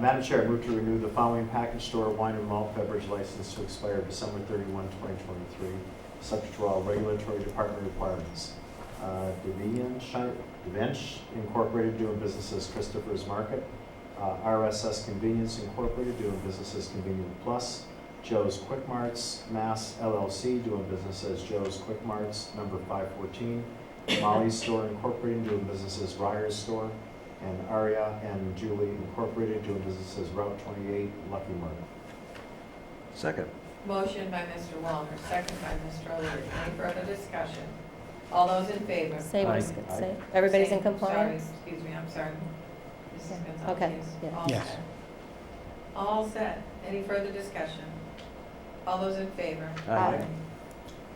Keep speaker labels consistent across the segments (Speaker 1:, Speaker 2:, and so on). Speaker 1: Madam Chair, I move to renew the following package store wine and malt beverage license to expire December 31, 2023, subject to all regulatory department requirements. Uh, Devian Shi- Devench Incorporated doing business as Christopher's Market, uh, RSS Convenience Incorporated doing business as Convenient Plus, Joe's Quick Marts, Mass LLC doing business as Joe's Quick Marts, number 514, Molly's Store Incorporated doing business as Ryer's Store, and Aria and Julie Incorporated doing business as Route 28 Lucky Mart.
Speaker 2: Second.
Speaker 3: Motion by Mr. Walner, second by Mr. O'Leary. Any further discussion? All those in favor?
Speaker 4: Say what it's
Speaker 1: Aye.
Speaker 4: good to say. Everybody's in
Speaker 3: Same.
Speaker 4: compliance?
Speaker 3: Sorry, excuse me, I'm sorry. Mrs.
Speaker 4: Yeah.
Speaker 3: Gonzalez.
Speaker 4: Okay,
Speaker 3: yes.
Speaker 4: yeah.
Speaker 3: All
Speaker 5: Yes.
Speaker 3: set. All set. Any further discussion? All those in favor?
Speaker 4: Aye.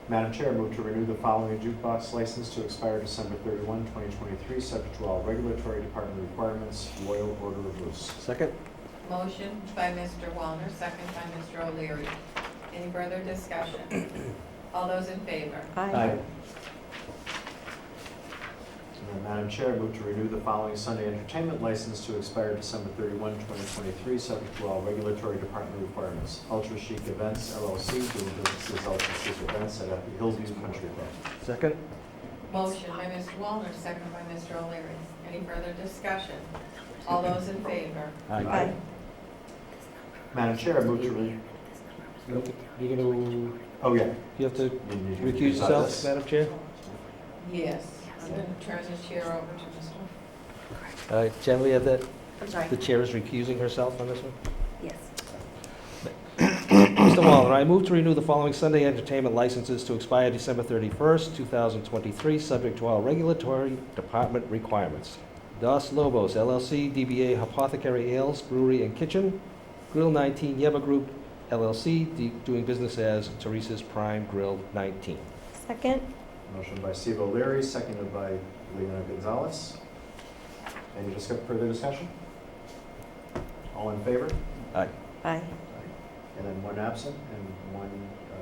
Speaker 1: Madam Chair, I move to renew the following jukebox license to expire December 31, 2023, subject to all regulatory department requirements, Loyal Order of Moose.
Speaker 2: Second.
Speaker 3: Motion by Mr. Walner, second by Mr. O'Leary. Any further discussion? All those in favor?
Speaker 4: Aye.
Speaker 1: And then, Madam Chair, I move to renew the following Sunday entertainment license to expire December 31, 2023, subject to all regulatory department requirements. Ultra Chic Events LLC doing business as Ultra Chic Events at Hillsview Country Club.
Speaker 2: Second.
Speaker 3: Motion by Mr. Walner, second by Mr. O'Leary. Any further discussion? All those in favor?
Speaker 4: Aye.
Speaker 1: Madam Chair, I move to re,
Speaker 5: You're gonna,
Speaker 1: oh yeah.
Speaker 5: you have to
Speaker 1: You need to
Speaker 5: recuse
Speaker 1: about
Speaker 5: yourself,
Speaker 1: this.
Speaker 5: Madam Chair?
Speaker 3: Yes. I'm going to turn the chair over to
Speaker 5: Uh,
Speaker 3: Mr.
Speaker 5: Jen, we have that,
Speaker 3: I'm sorry.
Speaker 5: the chair is recusing herself on this one?
Speaker 4: Yes.
Speaker 5: Mr. Wallner, I move to renew the following Sunday entertainment licenses to expire December 31st, 2023, subject to all regulatory department requirements. Dos Lobos LLC, DBA Apothecary Ales Brewery and Kitchen, Grill 19 Yeba Group LLC, d- doing business as Teresa's Prime Grill 19.
Speaker 4: Second?
Speaker 1: Motion by Steve O'Leary, seconded by Leona Gonzalez. Any discuss, further discussion? All in favor?
Speaker 4: Aye.
Speaker 1: And then one absent and one uh,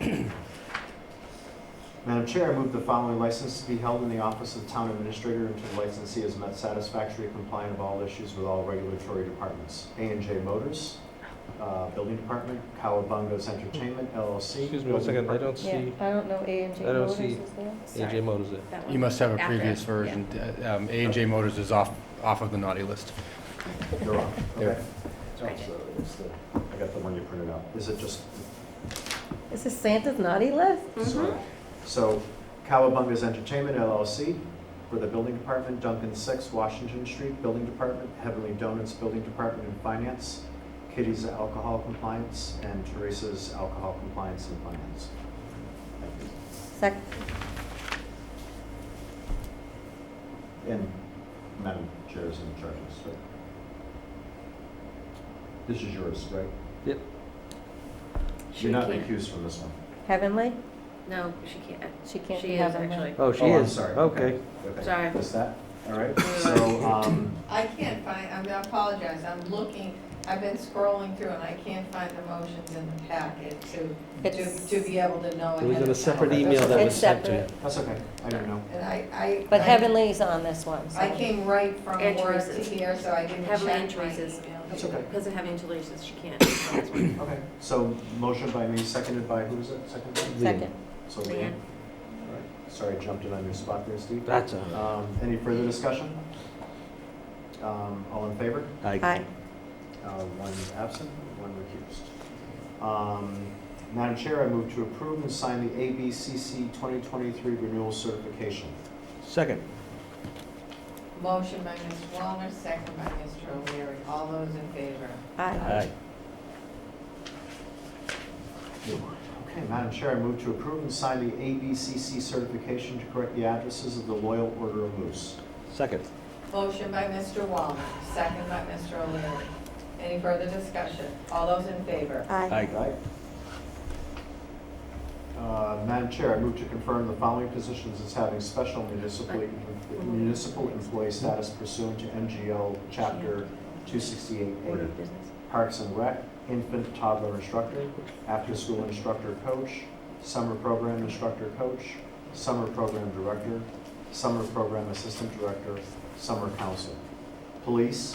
Speaker 1: recused. Madam Chair, I move the following license to be held in the office of Town Administrator until the licensee has met satisfactory compliance of all issues with all regulatory departments. a and J Motors, uh, Building Department, Cowabunga's Entertainment LLC.
Speaker 5: Excuse me one second, I don't
Speaker 4: Yeah,
Speaker 5: see
Speaker 4: I don't know A and J
Speaker 5: I don't
Speaker 4: Motors
Speaker 5: see-
Speaker 4: is there.
Speaker 5: AJ Motors there.
Speaker 6: You must have a previous version. Uh, A and J Motors is off, off of the naughty list.
Speaker 1: You're on,
Speaker 6: There.
Speaker 1: okay. So it's the- I got the one you printed out. Is it just
Speaker 4: Is this Santa's naughty list?
Speaker 1: Sorry.
Speaker 5: Mm-hmm.
Speaker 1: So Cowabunga's Entertainment LLC for the Building Department, Duncan Six, Washington Street Building Department, Heavenly Donuts Building Department and Finance, Kitty's Alcohol Compliance, and Teresa's Alcohol Compliance and Finance.
Speaker 4: Sec,
Speaker 1: And Madam Chair is in charge of this, right? This is yours, right?
Speaker 5: Yep.
Speaker 1: You're not recused from this one.
Speaker 4: Heavenly?
Speaker 7: No, she can't.
Speaker 4: she can't
Speaker 7: She
Speaker 4: be
Speaker 7: is
Speaker 4: Heavenly.
Speaker 7: actually.
Speaker 5: Oh, she
Speaker 1: Oh, I'm
Speaker 5: is,
Speaker 1: sorry.
Speaker 5: okay.
Speaker 1: Okay.
Speaker 7: Sorry.
Speaker 1: Is that, all right, so, um,
Speaker 3: I can't find, I'm- I apologize, I'm looking, I've been scrolling through and I can't find the motions in the packet to, to,
Speaker 4: It's-
Speaker 3: to be able to know
Speaker 5: It was
Speaker 3: ahead
Speaker 5: in a
Speaker 3: of
Speaker 5: separate
Speaker 3: time.
Speaker 5: email that was
Speaker 4: It's
Speaker 5: sent to you.
Speaker 4: separate.
Speaker 1: that's okay, I don't know.
Speaker 3: And I, I.
Speaker 4: But
Speaker 3: I-
Speaker 4: Heavenly's on this one, so.
Speaker 3: I came right from
Speaker 7: And
Speaker 3: work to
Speaker 7: Teresa's.
Speaker 3: here, so I didn't check
Speaker 7: Heavenly
Speaker 3: my
Speaker 7: and Teresa's.
Speaker 3: email.
Speaker 1: That's okay.
Speaker 7: Because of having two licenses, she can't.
Speaker 1: Okay, so motion by me, seconded by, who was it, seconded by?
Speaker 4: Second.
Speaker 1: So
Speaker 7: Leanne.
Speaker 1: Leanne. All right. Sorry, I jumped in on your spot there, Steve.
Speaker 5: That's all
Speaker 1: Um, Any further discussion? Um, All in favor?
Speaker 5: right.
Speaker 4: Aye.
Speaker 1: Uh, One absent, one recused. Um, Madam Chair, I move to approve and sign the ABCC 2023 renewal certification.
Speaker 5: Second.
Speaker 3: Motion by Mr. Walner, second by Mr. O'Leary. All those in favor?
Speaker 4: Aye.
Speaker 5: Aye.
Speaker 1: Okay, Madam Chair, I move to approve and sign the ABCC certification to correct the addresses of the Loyal Order of Moose.
Speaker 5: Second.
Speaker 3: Motion by Mr. Walner, second by Mr. O'Leary. Any further discussion? All those in favor?
Speaker 4: Aye.
Speaker 1: Aye. Uh, Madam Chair, I move to confirm the following positions as having special municipal, municipal employee status pursuant to MGL Chapter 268A.
Speaker 7: business.
Speaker 1: Parks and Rec, infant toddler instructor, after-school instructor coach, summer program instructor coach, summer program director, summer program assistant director, summer counselor. Police,